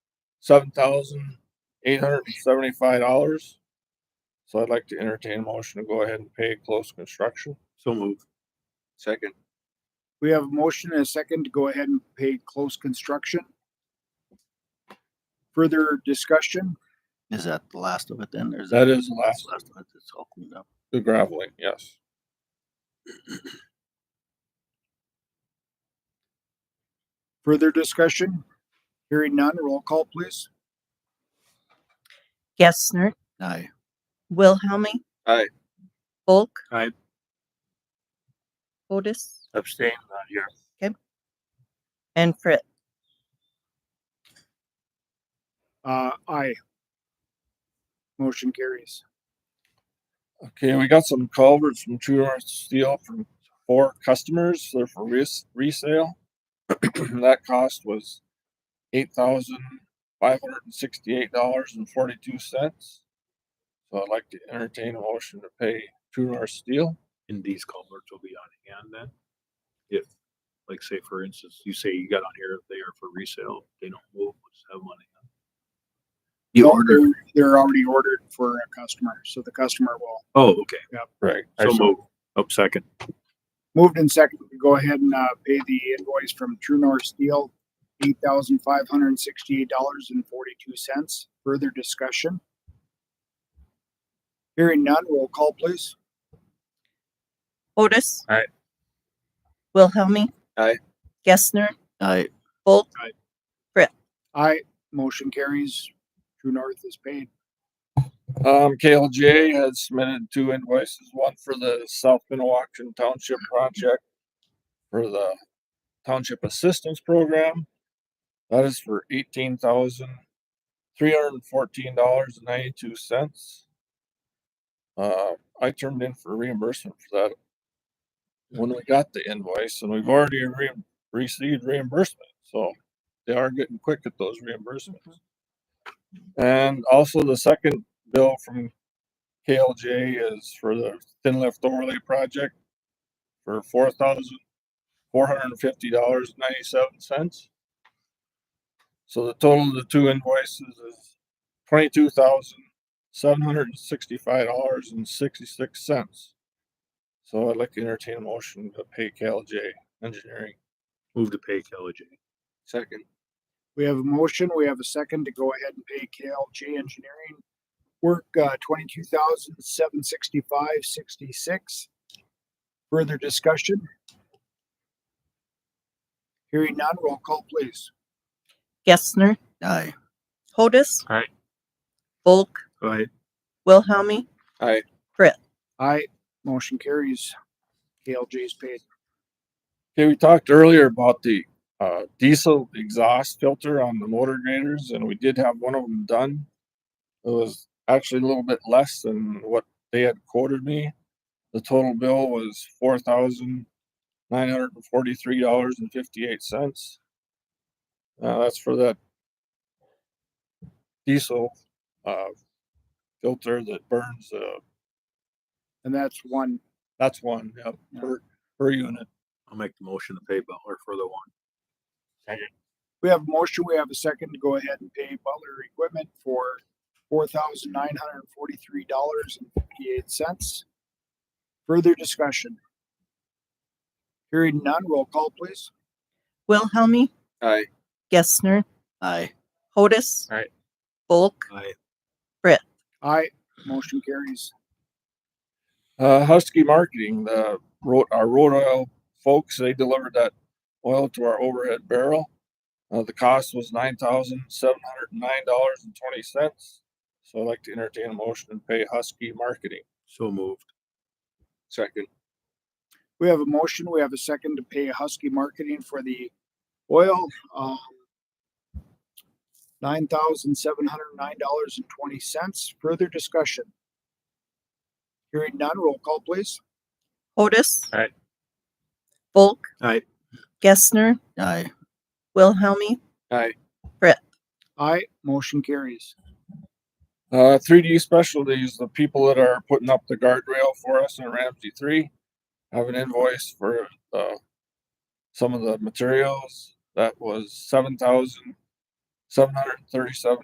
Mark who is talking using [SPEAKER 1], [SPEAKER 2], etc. [SPEAKER 1] seven thousand eight hundred and seventy-five dollars. So I'd like to entertain a motion to go ahead and pay close construction.
[SPEAKER 2] So moved.
[SPEAKER 1] Second.
[SPEAKER 3] We have a motion and a second to go ahead and pay close construction. Further discussion?
[SPEAKER 2] Is that the last of it then? There's
[SPEAKER 1] That is the last,
[SPEAKER 2] Last of it, it's all cleaned up.
[SPEAKER 1] the graveling, yes.
[SPEAKER 3] Further discussion? Hearing none, roll call please.
[SPEAKER 4] Gessner,
[SPEAKER 2] Aye.
[SPEAKER 4] Wilhelmie.
[SPEAKER 1] Aye.
[SPEAKER 4] Bulk.
[SPEAKER 2] Aye.
[SPEAKER 4] Otis
[SPEAKER 2] Abstain, not here.
[SPEAKER 4] and Fritz.
[SPEAKER 3] Uh, aye. Motion carries.
[SPEAKER 1] Okay, we got some culverts from True North Steel from four customers. They're for res- resale. that cost was eight thousand five hundred and sixty-eight dollars and forty-two cents. So I'd like to entertain a motion to pay True North Steel.
[SPEAKER 5] and these culverts will be on hand then? If, like, say, for instance, you say you got on here, if they are for resale, they don't move, we'll just have money.
[SPEAKER 2] You
[SPEAKER 3] No,
[SPEAKER 2] ordered,
[SPEAKER 3] they're- They're already ordered for a customer, so the customer will.
[SPEAKER 5] Oh, okay,
[SPEAKER 1] Right.
[SPEAKER 5] so move, up second,
[SPEAKER 3] Moved and second, we go ahead and, uh, pay the invoice from True North Steel, eight thousand five hundred and sixty-eight dollars and forty-two cents. Further discussion? Hearing none, roll call please.
[SPEAKER 4] Otis.
[SPEAKER 1] Aye.
[SPEAKER 4] Wilhelmie.
[SPEAKER 1] Aye.
[SPEAKER 4] Gessner,
[SPEAKER 2] aye.
[SPEAKER 4] Bulk.
[SPEAKER 3] Aye, motion carries. True North is paid.
[SPEAKER 1] Um, KLJ has submitted two invoices, one for the South Minnewacan Township project for the Township Assistance Program. That is for eighteen thousand three hundred and fourteen dollars and ninety-two cents. Uh, I turned in for reimbursement for that when we got the invoice and we've already re- received reimbursement, so they are getting quick at those reimbursements. And also the second bill from KLJ is for the thin lift overlay project for four thousand four hundred and fifty dollars ninety-seven cents. So the total of the two invoices is twenty-two thousand seven hundred and sixty-five dollars and sixty-six cents. So I'd like to entertain a motion to pay KLJ Engineering.
[SPEAKER 5] move to pay Kelly J.
[SPEAKER 1] Second.
[SPEAKER 3] We have a motion, we have a second to go ahead and pay KLJ Engineering work, uh, twenty-two thousand, seven sixty-five, sixty-six. Further discussion? Hearing none, roll call please.
[SPEAKER 4] Gessner,
[SPEAKER 2] Aye.
[SPEAKER 4] Otis.
[SPEAKER 5] Aye.
[SPEAKER 4] Bulk,
[SPEAKER 5] Right,
[SPEAKER 4] Wilhelmie.
[SPEAKER 1] Aye.
[SPEAKER 3] Aye, motion carries. KLJ is paid.
[SPEAKER 1] Okay, we talked earlier about the uh, diesel exhaust filter on the motor graders, and we did have one of them done. It was actually a little bit less than what they had quoted me. The total bill was four thousand nine hundred and forty-three dollars and fifty-eight cents. Uh, that's for that diesel uh, filter that burns. Uh,
[SPEAKER 3] And that's one.
[SPEAKER 1] that's one yep, per, per unit.
[SPEAKER 5] I'll make the motion to pay Butler for the one.
[SPEAKER 3] We have a motion, we have a second to go ahead and pay Butler Equipment for four thousand nine hundred and forty-three dollars and fifty-eight cents. Further discussion? Hearing none, roll call please.
[SPEAKER 4] Wilhelmie.
[SPEAKER 1] Aye.
[SPEAKER 4] Gessner,
[SPEAKER 2] Aye.
[SPEAKER 4] Otis.
[SPEAKER 1] Aye.
[SPEAKER 4] Bulk,
[SPEAKER 5] Aye,
[SPEAKER 3] Aye, motion carries.
[SPEAKER 1] Uh, Husky Marketing, the road, our road oil folks, they delivered that oil to our overhead barrel. Uh, the cost was nine thousand seven hundred and nine dollars and twenty cents. So I'd like to entertain a motion and pay Husky Marketing.
[SPEAKER 5] so moved,
[SPEAKER 1] Second.
[SPEAKER 3] We have a motion, we have a second to pay Husky Marketing for the oil, um, nine thousand seven hundred and nine dollars and twenty cents. Further discussion? Hearing none, roll call please.
[SPEAKER 4] Otis.
[SPEAKER 1] Aye.
[SPEAKER 4] Bulk.
[SPEAKER 5] Aye.
[SPEAKER 4] Gessner,
[SPEAKER 2] Aye.
[SPEAKER 4] Wilhelmie.
[SPEAKER 3] Aye, motion carries.
[SPEAKER 1] Uh, 3D Specialties, the people that are putting up the guardrail for us in Ramsey 3, have an invoice for uh, some of the materials. That was seven thousand seven hundred and thirty-seven